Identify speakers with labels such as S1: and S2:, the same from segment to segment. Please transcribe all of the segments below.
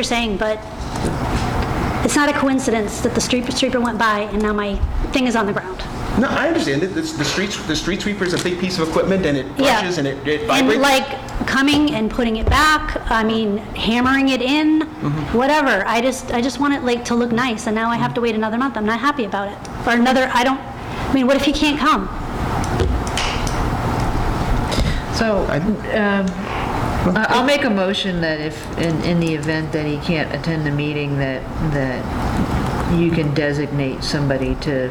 S1: you're saying, but it's not a coincidence that the street sweeper went by and now my thing is on the ground.
S2: No, I understand. it. It's- The street, the street sweeper is a big piece of equipment and it
S1: Yeah.
S2: brushes and it it
S1: And
S2: vibrates.
S1: like coming and putting it back, I mean, hammering it in,
S2: Mm-hmm.
S1: whatever. I just, I just want it like to look nice and now I have to wait another month. I'm not happy about it. Or another, I don't, I mean, what if he can't come?
S3: So, um, I- I'll make a motion that if, in, in the event that he can't attend the meeting, that, that you can designate somebody to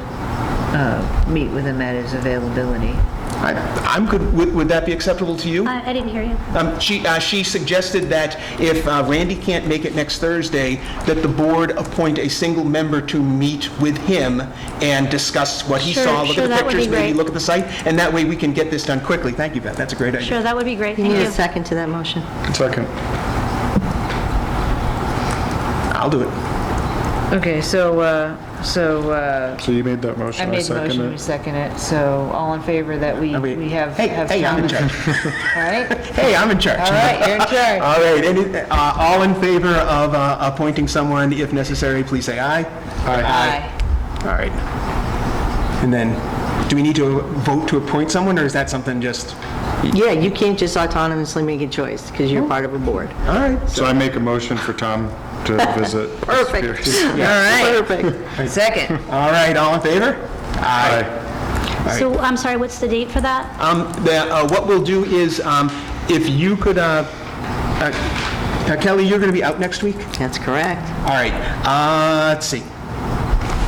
S3: uh, meet with him at his availability.
S2: I- I'm good, would would that be acceptable to you?
S1: I, I didn't hear you.
S2: Um, She uh, she suggested that if uh, Randy can't make it next Thursday, that the board appoint a single member to meet with him and discuss what he
S1: Sure,
S2: saw, look
S1: sure,
S2: at the
S1: that would be
S2: pictures, maybe
S1: great.
S2: look at the site, and that way we can get this done quickly. Thank you, Beth, that's a great idea.
S1: Sure, that would be great.
S4: You need a
S1: Thank you.
S4: second to that motion.
S5: Second.
S2: I'll do it.
S3: Okay, so, uh, so uh,
S5: So you made that motion.
S3: I made the
S5: second
S3: motion,
S5: it.
S3: we second it, so all in favor that we,
S2: Are we-
S3: we have.
S2: Hey,
S3: have
S2: hey, I'm in
S3: time.
S2: charge.
S3: All right?
S2: Hey, I'm in charge.
S3: All right, you're in charge.
S2: All right, any- uh, all in favor of uh, appointing someone, if necessary, please say aye.
S3: Aye.
S2: All right. And then, do we need to vote to appoint someone, or is that something just,
S4: Yeah, you can't just autonomously make a choice because you're part of a board.
S2: all right?
S5: So I make a motion for Tom to visit. the
S4: Perfect.
S5: Superior-
S3: All
S4: Perfect.
S3: right, second.
S2: All right, all in favor?
S5: Aye.
S1: So I'm sorry, what's the date for that?
S2: Um, the, uh, what we'll do is, um, if you could, uh, uh, now, Kelly, you're going to be out next week?
S4: That's correct.
S2: All right, uh, let's see.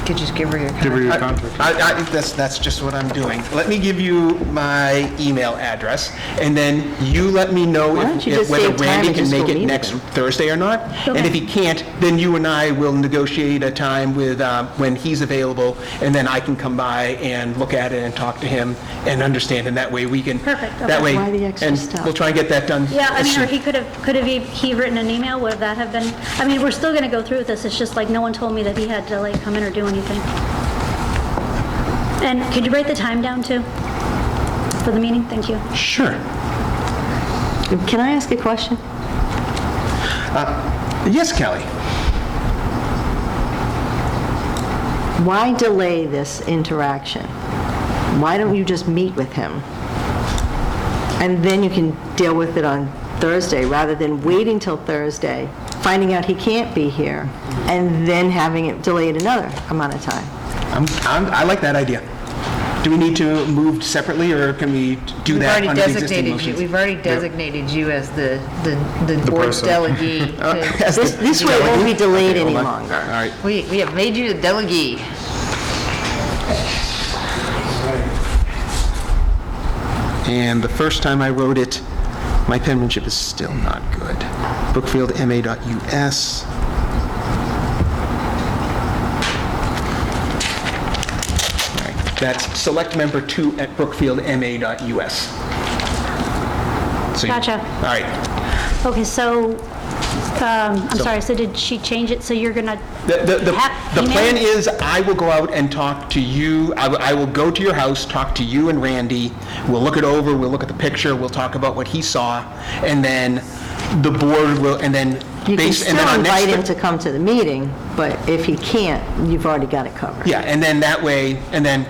S3: Could you just give her your
S5: Give her
S3: contact?
S5: your contact.
S2: I, I, that's, that's just what I'm doing. Let me give you my email address, and then you let me know
S4: Why
S2: if-
S4: don't you
S2: if
S4: just
S2: whether
S4: save time
S2: Randy
S4: and
S2: can
S4: just
S2: make
S4: go
S2: it
S4: meet
S2: next
S4: with
S2: Thursday or not. And if he can't, then you and I will negotiate a time with, um, when he's available, and then I can come by and look at it and talk to him and understand, and that way we can.
S1: Perfect, okay.
S2: That way,
S4: Why the extra
S2: and
S4: step?
S2: we'll try and get that done.
S1: Yeah, I
S2: as
S1: mean,
S2: soon-
S1: or he could have, could have he- he written an email, would that have been, I mean, we're still going to go through with this, it's just like, no one told me that he had to like come in or do anything. And could you write the time down too, for the meeting? Thank you.
S2: Sure.
S4: Can I ask a question?
S2: Yes, Kelly?
S4: Why delay this interaction? Why don't you just meet with him? And then you can deal with it on Thursday, rather than waiting till Thursday, finding out he can't be here, and then having it delayed another amount of time.
S2: I'm, I'm, I like that idea. Do we need to move separately, or can we do
S3: We've
S2: that
S3: already
S2: under the existing
S3: designated you,
S2: motions?
S3: we've already designated you as the, the, the board's
S5: person.
S3: delegate. to-
S2: As the-
S4: This this way it won't be delayed any
S2: Hold on.
S4: longer.
S2: All right.
S3: We, we have made you the delegate.
S2: And the first time I wrote it, my penmanship is still not good. Brookfieldma.us. All right, That's select member two at brookfieldma.us. So you-
S1: Gotcha.
S2: All right.
S1: Okay, so, um, I'm sorry, so did she change it, so you're going to,
S2: The, the, the-
S1: Ha-
S2: the plan
S1: email?
S2: is I will go out and talk to you, I will, I will go to your house, talk to you and Randy. We'll look it over, we'll look at the picture, we'll talk about what he saw, and then the board will, and then
S4: You can
S2: based, and then
S4: still
S2: on next...
S4: invite
S2: Thur-
S4: him to come to the meeting, but if he can't, you've already got it covered.
S2: Yeah, and then that way, and then,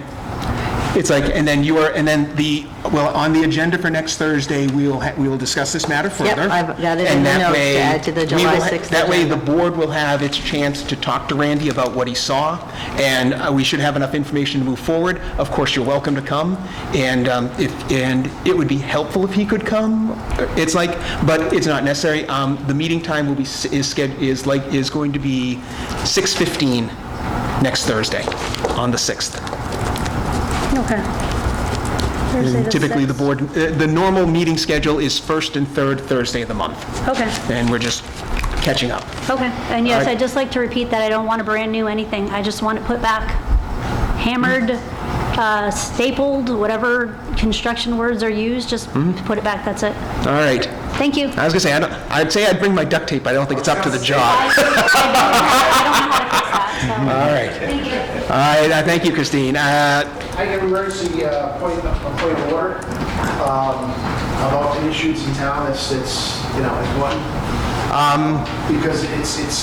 S2: it's like, and then you are, and then the, well, on the agenda for next Thursday, we will, ha- we will discuss this matter
S4: Yep,
S2: further.
S4: I've got it in
S2: And
S4: the
S2: that
S4: notes to
S2: way,
S4: add to the
S2: we
S4: July
S2: will ha-
S4: 6th
S2: That way, the
S4: agenda.
S2: board will have its chance to talk to Randy about what he saw, and uh, we should have enough information to move forward. Of course, you're welcome to come, and um, if, and it would be helpful if he could come. It's like, but it's not necessary. Um, The meeting time will be, s- is sched, is like, is going to be 6:15 next Thursday, on the 6th.
S1: okay. Thursday the
S2: Typically, the
S1: sixth.
S2: board, uh, the normal meeting schedule is first and third Thursday of the month,
S1: Okay,
S2: and we're just catching up.
S1: okay, and yes,
S2: Alright.
S1: I'd just like to repeat that I don't want a brand-new anything, I just want it put back, hammered, uh, stapled, whatever construction words are used, just put it back, that's it.
S2: All right.
S1: Thank you.
S2: I was gonna say, I don't, I'd say I'd bring my duct tape, but I don't think it's up to the job. All right.
S1: Thank you.
S2: All right, I thank you, Christine. Uh,
S6: I have an emergency uh, point, a point of order um, about the issues in town. It's, it's, you know, it's one, Because it's, it's